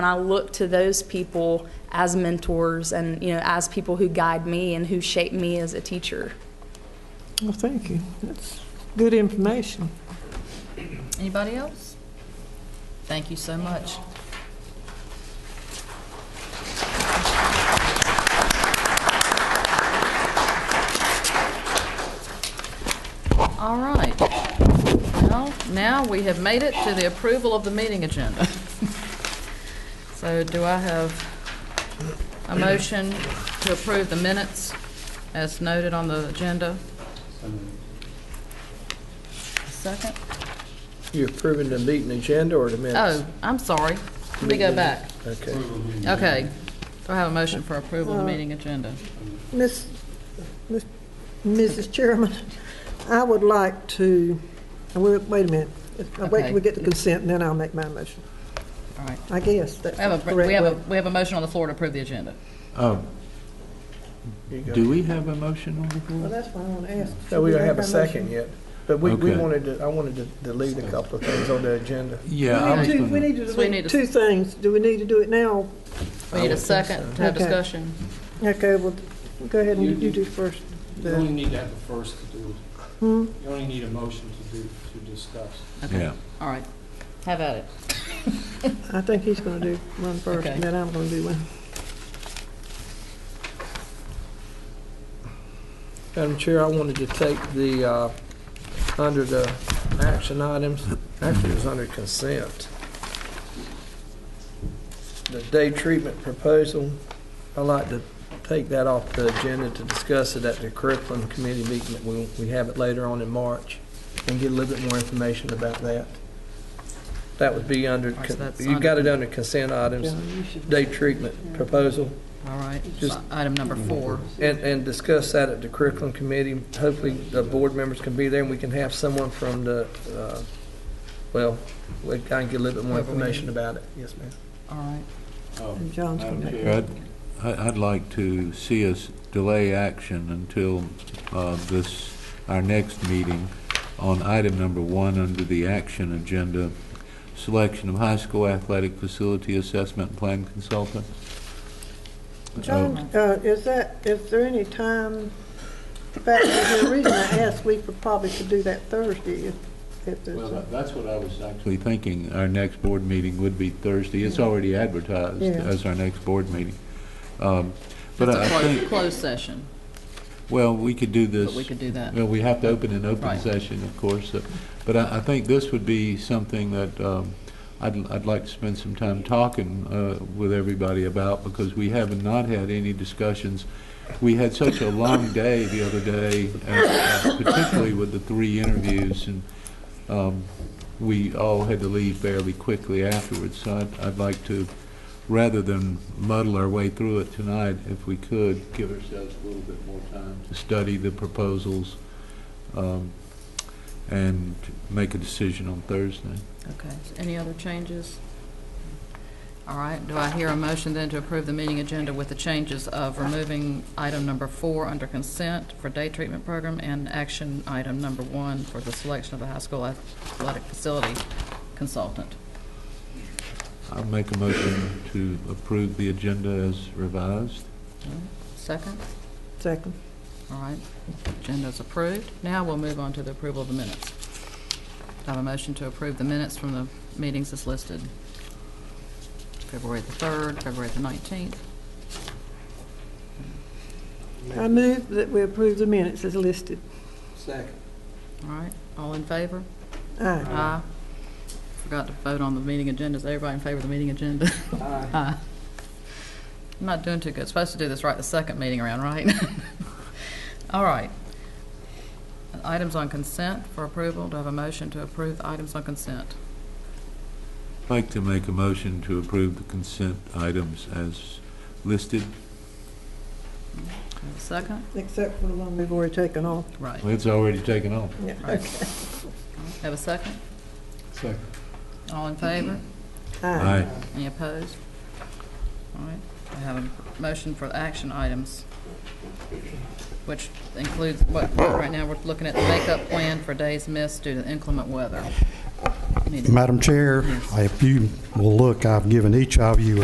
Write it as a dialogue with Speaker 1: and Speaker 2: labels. Speaker 1: And I look to those people as mentors and, you know, as people who guide me and who shape me as a teacher.
Speaker 2: Well, thank you. That's good information.
Speaker 3: Anybody else? Thank you so much. All right. Well, now we have made it to the approval of the meeting agenda. So do I have a motion to approve the minutes as noted on the agenda? Second?
Speaker 4: You approving the meeting agenda or the minutes?
Speaker 3: Oh, I'm sorry. Let me go back.
Speaker 4: Okay.
Speaker 3: Okay. Do I have a motion for approval of
Speaker 2: Uh,
Speaker 3: the meeting agenda?
Speaker 2: Miss, Miss- Mrs. Chairman, I would like to, wait wait a minute. I'll Wait till we get the consent, and then I'll make my motion.
Speaker 3: All right.
Speaker 2: I guess that's
Speaker 3: We have a,
Speaker 2: correct.
Speaker 3: we have a,
Speaker 2: way.
Speaker 3: we have a motion on the floor to approve the agenda.
Speaker 5: Um,
Speaker 4: You go.
Speaker 5: Do we have a motion on the
Speaker 2: Well,
Speaker 5: floor?
Speaker 2: that's why I want to ask.
Speaker 4: No, we
Speaker 2: Should
Speaker 4: don't have a
Speaker 2: make our motion?
Speaker 4: second yet, but we, we
Speaker 5: Okay.
Speaker 4: wanted to, I wanted to delete a couple of things on the agenda.
Speaker 5: Yeah. I
Speaker 2: We
Speaker 5: was
Speaker 2: need to,
Speaker 5: gonna-
Speaker 2: we need to
Speaker 3: So we need
Speaker 2: delete
Speaker 3: to-
Speaker 2: two things. Do we need to do it now?
Speaker 3: We need a second to have
Speaker 2: Okay.
Speaker 3: discussion.
Speaker 2: Okay, well, go ahead
Speaker 6: You
Speaker 2: and
Speaker 6: do.
Speaker 2: you do first.
Speaker 6: You only need to have a first to do it.
Speaker 2: Hmm?
Speaker 6: You only need a motion to do, to discuss.
Speaker 5: Yeah.
Speaker 3: All right. Have at it.
Speaker 2: I think he's going to do one first,
Speaker 3: Okay.
Speaker 2: and then I'm going to do one.
Speaker 4: Madam Chair, I wanted to take the, uh, under the action items, actually it was under consent. The day treatment proposal, I'd like to take that off the agenda to discuss it at the curriculum committee meeting that we, we have it later on in March and get a little bit more information about that. That would be under,
Speaker 3: All right, so that's
Speaker 4: you got it under consent items,
Speaker 2: John, you should-
Speaker 4: day treatment proposal.
Speaker 3: All right.
Speaker 4: Just-
Speaker 3: Item number four.
Speaker 4: And, and discuss that at the curriculum committee. Hopefully, the board members can be there, and we can have someone from the, uh, well, we can get a little bit more information about it. Yes, ma'am.
Speaker 3: All right.
Speaker 2: and John's going to make.
Speaker 5: I'd, I- I'd like to see us delay action until uh, this, our next meeting on item number one under the action agenda, selection of high school athletic facility assessment plan consultant. Oh,
Speaker 2: John, uh, is that, is there any time, in fact, the reason I asked, we could probably could do that Thursday if, if there's,
Speaker 5: Well,
Speaker 2: a-
Speaker 5: that- that's what I was actually thinking, our next board meeting would be Thursday. It's already advertised
Speaker 2: Yeah.
Speaker 5: as our next board meeting. Um, But
Speaker 3: That's
Speaker 5: I
Speaker 3: a
Speaker 5: I
Speaker 3: closed,
Speaker 5: think,
Speaker 3: closed session,
Speaker 5: well, we could do this.
Speaker 3: but we could do that.
Speaker 5: Well, we have to open an open
Speaker 3: Right.
Speaker 5: session, of course, uh, but I, I think this would be something that um, I'd, I'd like to spend some time talking uh, with everybody about, because we have not had any discussions. We had such a long day the other day, and, uh, particularly with the three interviews, and um, we all had to leave fairly quickly afterwards, so I'd, I'd like to, rather than muddle our way through it tonight, if we could, give ourselves a little bit more time to study the proposals um, and make a decision on Thursday.
Speaker 3: Okay. Any other changes? All right. Do I hear a motion then to approve the meeting agenda with the changes of removing item number four under consent for day treatment program and action item number one for the selection of a high school athletic facility consultant?
Speaker 5: I'll make a motion to approve the agenda as revised.
Speaker 3: Second?
Speaker 2: second.
Speaker 3: All right. Agenda's approved. Now we'll move on to the approval of the minutes. Do I have a motion to approve the minutes from the meetings as listed? February the 3rd, February the 19th.
Speaker 2: I move that we approve the minutes as listed.
Speaker 4: Second.
Speaker 3: All right. All in favor?
Speaker 2: Aye.
Speaker 3: Aye. Forgot to vote on the meeting agenda. Is everybody in favor of the meeting agenda? Aye. I'm not doing too good. Supposed to do this right the second meeting around, right? All right. Items on consent for approval. Do I have a motion to approve the items on consent?
Speaker 5: I'd like to make a motion to approve the consent items as listed.
Speaker 3: Do I have a Second?
Speaker 2: Except for the one we've already taken off.
Speaker 3: Right.
Speaker 5: It's already taken off.
Speaker 2: Yeah,
Speaker 3: Right.
Speaker 2: okay.
Speaker 3: Have a second?
Speaker 6: Second.
Speaker 3: All in favor?
Speaker 2: Aye.
Speaker 5: Aye.
Speaker 3: Any opposed? All right, I have a motion for the action items, which includes, what, right now, we're looking at the makeup plan for days missed due to inclement weather. committee.
Speaker 7: Madam Chair, if you will look, I've given each of you